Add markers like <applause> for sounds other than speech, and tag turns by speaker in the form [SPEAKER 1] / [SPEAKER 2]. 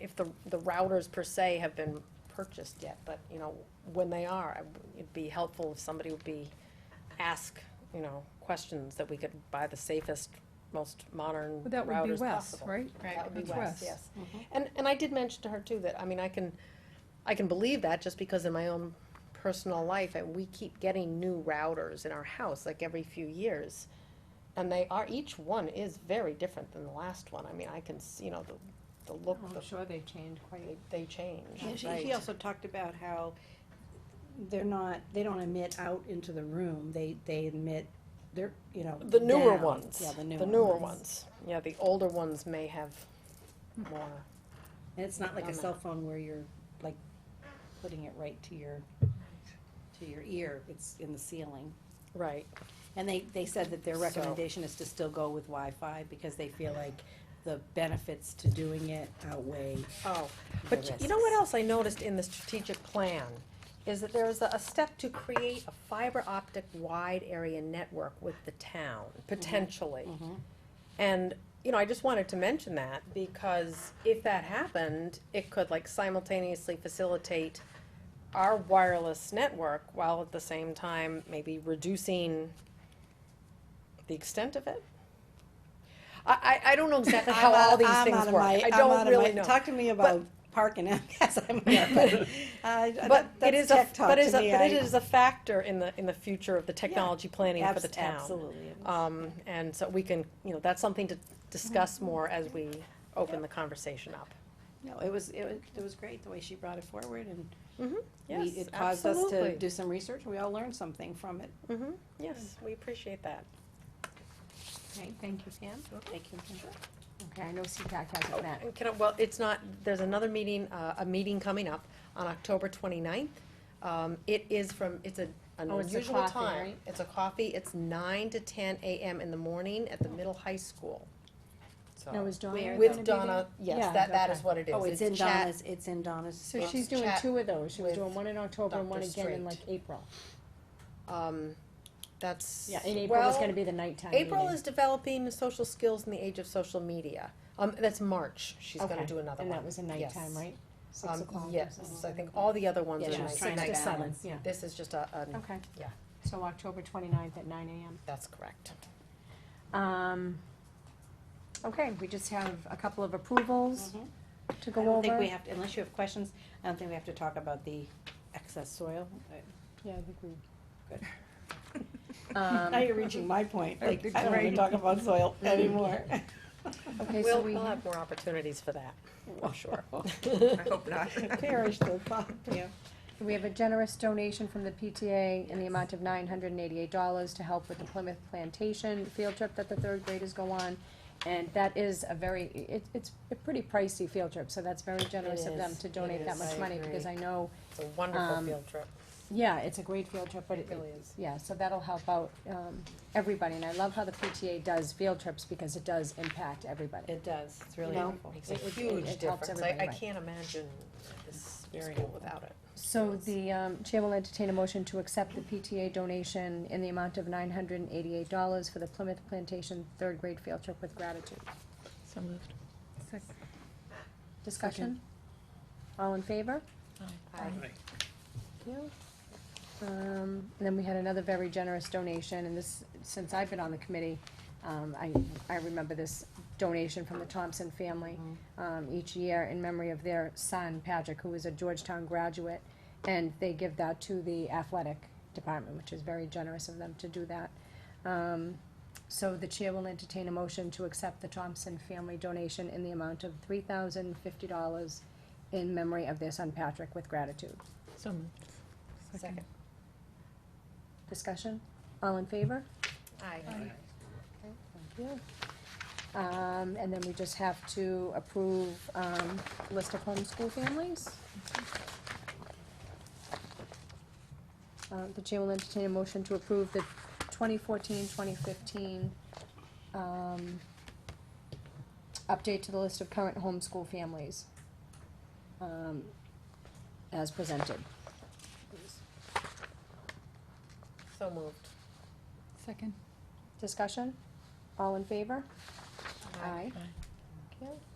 [SPEAKER 1] if the, the routers per se have been purchased yet, but, you know, when they are, I- it'd be helpful if somebody would be, ask, you know, questions that we could buy the safest, most modern
[SPEAKER 2] That would be
[SPEAKER 1] routers
[SPEAKER 2] Wes,
[SPEAKER 1] possible.
[SPEAKER 2] right?
[SPEAKER 1] That would be Wes,
[SPEAKER 2] That's Wes.
[SPEAKER 1] yes.
[SPEAKER 3] Mm-hmm.
[SPEAKER 1] And, and I did mention to her too that, I mean, I can, I can believe that just because in my own personal life, and we keep getting new routers in our house, like every few years. And they are, each one is very different than the last one. I mean, I can, s- you know, the, the look, the,
[SPEAKER 4] Oh, I'm sure they change quite.
[SPEAKER 1] they, they change,
[SPEAKER 3] Yeah, she, he
[SPEAKER 1] right?
[SPEAKER 3] also talked about how they're not, they don't emit out into the room, they, they emit, they're, you know.
[SPEAKER 1] The newer
[SPEAKER 3] down.
[SPEAKER 1] ones,
[SPEAKER 3] Yeah, the newer
[SPEAKER 1] the newer ones. Yeah, the older ones may have
[SPEAKER 3] Mm.
[SPEAKER 1] more,
[SPEAKER 3] And it's not like a
[SPEAKER 1] Um,
[SPEAKER 3] cell phone where you're like putting it right to your, to your ear, it's in the ceiling.
[SPEAKER 1] right,
[SPEAKER 3] And they, they said that their
[SPEAKER 1] So-
[SPEAKER 3] recommendation is to still go with Wi-Fi because they feel like the benefits to doing it outweigh
[SPEAKER 1] oh.
[SPEAKER 3] the
[SPEAKER 1] But
[SPEAKER 3] risks.
[SPEAKER 1] you- you know what else I noticed in the strategic plan? Is that there is a a step to create a fiber optic wide area network with the town,
[SPEAKER 3] Mm-hmm.
[SPEAKER 1] potentially. And, you know, I just wanted to mention that because if that happened, it could like simultaneously facilitate our wireless network while at the same time maybe reducing the extent of it. I, I, I don't know
[SPEAKER 3] <laughs>
[SPEAKER 1] exactly how
[SPEAKER 3] I'm
[SPEAKER 1] all
[SPEAKER 3] out-
[SPEAKER 1] these
[SPEAKER 3] I'm out
[SPEAKER 1] things
[SPEAKER 3] of
[SPEAKER 1] work.
[SPEAKER 3] my-
[SPEAKER 1] I
[SPEAKER 3] I'm out
[SPEAKER 1] don't
[SPEAKER 3] of
[SPEAKER 1] really
[SPEAKER 3] my-
[SPEAKER 1] know.
[SPEAKER 3] Talk to me about park <laughs> and MCAS, I'm
[SPEAKER 1] <laughs>
[SPEAKER 3] out. I- I-
[SPEAKER 1] But
[SPEAKER 3] that's
[SPEAKER 1] it is a,
[SPEAKER 3] tech talk
[SPEAKER 1] but
[SPEAKER 3] to
[SPEAKER 1] is a,
[SPEAKER 3] me,
[SPEAKER 1] but it
[SPEAKER 3] I-
[SPEAKER 1] is a factor in the, in the future of the technology planning for
[SPEAKER 3] abs-
[SPEAKER 1] the town.
[SPEAKER 3] Absolutely. it is.
[SPEAKER 1] Um, and so we can, you know, that's something to
[SPEAKER 3] Mm-hmm.
[SPEAKER 1] discuss more as we open the conversation up.
[SPEAKER 3] No, it was, it was, it was great, the way she brought it forward and Mm-hmm. we,
[SPEAKER 1] Yes,
[SPEAKER 3] it caused us to
[SPEAKER 1] absolutely.
[SPEAKER 3] do Mm-hmm. some research, and we all learned something from it.
[SPEAKER 1] Mhm, Yes, we appreciate that.
[SPEAKER 4] Okay, thank you, Pam.
[SPEAKER 3] Thank you.
[SPEAKER 4] Okay, I know CPAC hasn't met.
[SPEAKER 1] Oh, And can I, well, it's not, there's another meeting, uh, a meeting coming up on October twenty-ninth. Um, it is from, it's a, an
[SPEAKER 4] Oh, it's a
[SPEAKER 1] unusual
[SPEAKER 4] coffee,
[SPEAKER 1] time.
[SPEAKER 4] right?
[SPEAKER 1] It's a coffee, it's nine to ten AM in the morning at the middle high school. So-
[SPEAKER 2] Now, is Donna
[SPEAKER 3] Where
[SPEAKER 2] gonna be
[SPEAKER 1] Oh. With
[SPEAKER 2] there?
[SPEAKER 1] Donna, yes,
[SPEAKER 2] Yeah,
[SPEAKER 1] that, that is
[SPEAKER 2] okay.
[SPEAKER 1] what it is.
[SPEAKER 3] Oh, it's in
[SPEAKER 1] chat-
[SPEAKER 3] Donna's, it's in Donna's.
[SPEAKER 2] So
[SPEAKER 1] Let's
[SPEAKER 2] she's doing
[SPEAKER 1] chat
[SPEAKER 2] two of those, she was
[SPEAKER 1] with
[SPEAKER 2] doing one in October and one
[SPEAKER 1] Dr.
[SPEAKER 2] again in
[SPEAKER 1] Strait.
[SPEAKER 2] like April.
[SPEAKER 1] Um, that's.
[SPEAKER 2] Yeah, and April was
[SPEAKER 1] well,
[SPEAKER 2] gonna be the nighttime
[SPEAKER 1] April
[SPEAKER 2] meeting.
[SPEAKER 1] is developing social skills in the age of social media. Um, that's March, she's gonna
[SPEAKER 2] Okay,
[SPEAKER 1] do another one.
[SPEAKER 2] And that was a
[SPEAKER 1] Yes.
[SPEAKER 2] nighttime, right? Six
[SPEAKER 1] Um,
[SPEAKER 2] o'clock or
[SPEAKER 1] yes,
[SPEAKER 2] something.
[SPEAKER 1] so I think all the other ones
[SPEAKER 3] Yeah,
[SPEAKER 1] are
[SPEAKER 3] she
[SPEAKER 1] night-
[SPEAKER 3] was trying to
[SPEAKER 1] night
[SPEAKER 3] balance.
[SPEAKER 1] hours.
[SPEAKER 2] Yeah.
[SPEAKER 1] This is just a, an,
[SPEAKER 4] Okay.
[SPEAKER 1] Yeah.
[SPEAKER 4] So October twenty-ninth at nine AM.
[SPEAKER 1] that's correct.
[SPEAKER 4] Um, okay, we just have a couple of approvals
[SPEAKER 3] Mhm.
[SPEAKER 1] Mm-hmm.
[SPEAKER 4] to
[SPEAKER 3] I
[SPEAKER 4] go
[SPEAKER 3] don't think we
[SPEAKER 4] over.
[SPEAKER 3] have, to unless you have questions, I don't think we have to talk about the excess soil.
[SPEAKER 2] Yeah, I think we,
[SPEAKER 4] <laughs> Um,
[SPEAKER 3] Now you're reaching my point, like, I don't wanna
[SPEAKER 4] Right.
[SPEAKER 3] talk about <laughs> soil anymore.
[SPEAKER 2] okay, so
[SPEAKER 1] We'll,
[SPEAKER 2] we,
[SPEAKER 1] we'll have more opportunities for that, I'm sure. <laughs>
[SPEAKER 5] I hope not.
[SPEAKER 3] Perish the thought, yeah.
[SPEAKER 2] we have a generous donation from the PTA in the amount of nine hundred and eighty-eight dollars to help with the Plymouth Plantation field trip that the third graders go on. And that is a very, it, it's a pretty pricey field trip, so that's very generous of them
[SPEAKER 1] is,
[SPEAKER 2] to
[SPEAKER 1] it
[SPEAKER 2] donate that
[SPEAKER 1] is,
[SPEAKER 2] much
[SPEAKER 1] I
[SPEAKER 2] money,
[SPEAKER 1] agree.
[SPEAKER 2] because I know
[SPEAKER 1] It's a wonderful
[SPEAKER 2] Um,
[SPEAKER 1] field trip.
[SPEAKER 2] Yeah, it's a great field trip, but it,
[SPEAKER 1] really is.
[SPEAKER 2] yeah, so that'll help out, um, everybody, and I love how the PTA does field trips, because it does impact everybody.
[SPEAKER 3] It does, it's really
[SPEAKER 2] know,
[SPEAKER 3] helpful.
[SPEAKER 1] Makes a
[SPEAKER 2] it- it-
[SPEAKER 1] huge
[SPEAKER 2] it helps
[SPEAKER 1] difference. I, I
[SPEAKER 2] everybody, right.
[SPEAKER 1] can't imagine this school without it.
[SPEAKER 2] So the, um, chair will entertain a motion to accept the PTA donation in the amount of nine hundred and eighty-eight dollars for the Plymouth Plantation third grade field trip with gratitude.
[SPEAKER 5] So moved.
[SPEAKER 2] Discussion? All in favor? Thank you. Um, and then we had another very generous donation, and this, since I've been on the committee, um, I, I remember this donation from the Thompson family, um, each year in memory of their son, Patrick, who is a Georgetown graduate. And they give that to the athletic department, which is very generous of them to do that. Um, so the chair will entertain a motion to accept the Thompson family donation in the amount of three thousand fifty dollars in memory of their son, Patrick, with gratitude.
[SPEAKER 5] So moved.
[SPEAKER 1] Second.
[SPEAKER 2] Discussion? All in favor?
[SPEAKER 1] Aye.
[SPEAKER 2] Thank you. Um, and then we just have to approve, um, list of homeschool families. Uh, the chair will entertain a motion to approve the 2014-2015 um, update to the list of current homeschool families, um, as presented.
[SPEAKER 1] So moved.
[SPEAKER 2] Discussion? All in favor? Aye. Thank you.